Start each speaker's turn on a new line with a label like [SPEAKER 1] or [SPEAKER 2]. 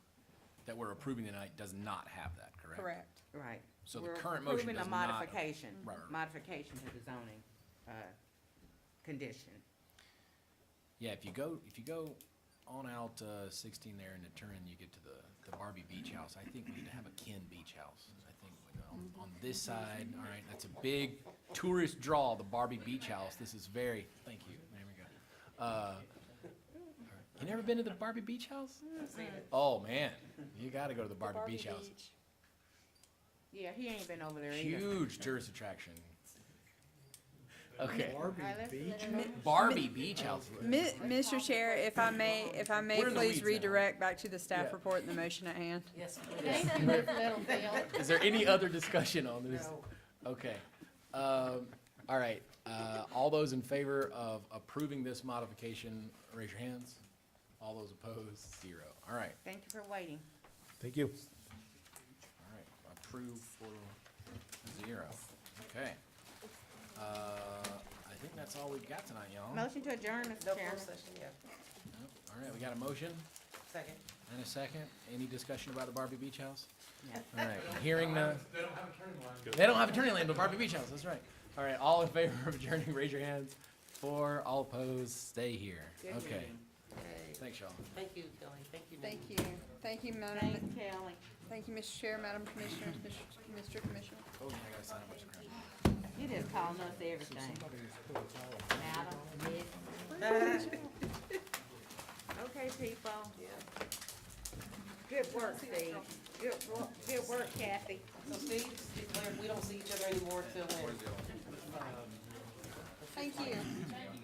[SPEAKER 1] that we're approving tonight does not have that, correct?
[SPEAKER 2] correct.
[SPEAKER 3] Right.
[SPEAKER 1] So the
[SPEAKER 3] We're
[SPEAKER 1] current motion
[SPEAKER 3] approving a
[SPEAKER 1] does not-
[SPEAKER 3] Modification,
[SPEAKER 1] Right, right, right.
[SPEAKER 3] modification to the zoning, uh, condition.
[SPEAKER 1] Yeah, if you go, if you go on out uh, 16 there and turn, you get to the the Barbie Beach House. I think we need to have a Ken Beach House. I think we- on- on this side, all right, that's a big tourist draw, the Barbie Beach House. This is very, thank you, there we go. Uh, You never been to the Barbie Beach House?
[SPEAKER 3] Uh,
[SPEAKER 1] Oh, man, you gotta go to the Barbie Beach House.
[SPEAKER 3] Yeah, he ain't been over there either.
[SPEAKER 1] Huge tourist attraction. Okay,
[SPEAKER 3] Barbie Beach?
[SPEAKER 1] Barbie Beach House.
[SPEAKER 2] Mi- Mr. Chair, if I may, if I may,
[SPEAKER 1] We're in the weeds
[SPEAKER 2] please
[SPEAKER 1] now.
[SPEAKER 2] redirect back to the
[SPEAKER 1] Yeah.
[SPEAKER 2] staff report and the motion at hand.
[SPEAKER 4] Nathan lived Littlefield.
[SPEAKER 1] Is there any other discussion on this? Okay. Um, all right. Uh, all those in favor of approving this modification, raise your hands. All those opposed, zero. All right.
[SPEAKER 3] Thank you for waiting.
[SPEAKER 5] Thank you.
[SPEAKER 1] All right. Approved for zero. Okay. Uh, I think that's all we've got tonight, y'all. All
[SPEAKER 3] Motion to adjourn, Mr. Chairman.
[SPEAKER 1] right. We got a motion
[SPEAKER 3] Second.
[SPEAKER 1] and a second. Any discussion about the Barbie Beach House?
[SPEAKER 3] No.
[SPEAKER 1] All right. Hearing none. They don't have a turning lane. They don't have a turning lane, but Barbie Beach House, that's right. All right. All in favor of adjourning, raise your hands. Four, all opposed, stay here.
[SPEAKER 3] Good
[SPEAKER 1] Okay.
[SPEAKER 3] meeting.
[SPEAKER 1] Thanks, y'all. Oh,
[SPEAKER 6] Thank you, Kelly. Thank you, Nate.
[SPEAKER 2] Thank you. Thank you, Madam,
[SPEAKER 3] Thanks, Kelly.
[SPEAKER 2] thank you, Mr. Chair, Madam Commissioner, Mr. Commissioner.
[SPEAKER 1] Oh, yeah, I gotta sign a bunch of crap.
[SPEAKER 3] You just calling us everything. Madam, Miss. Okay, people. Good work, Steve. Good work, good work, Kathy.
[SPEAKER 6] So Steve, declared we don't see each other anymore till when?
[SPEAKER 2] Thank you.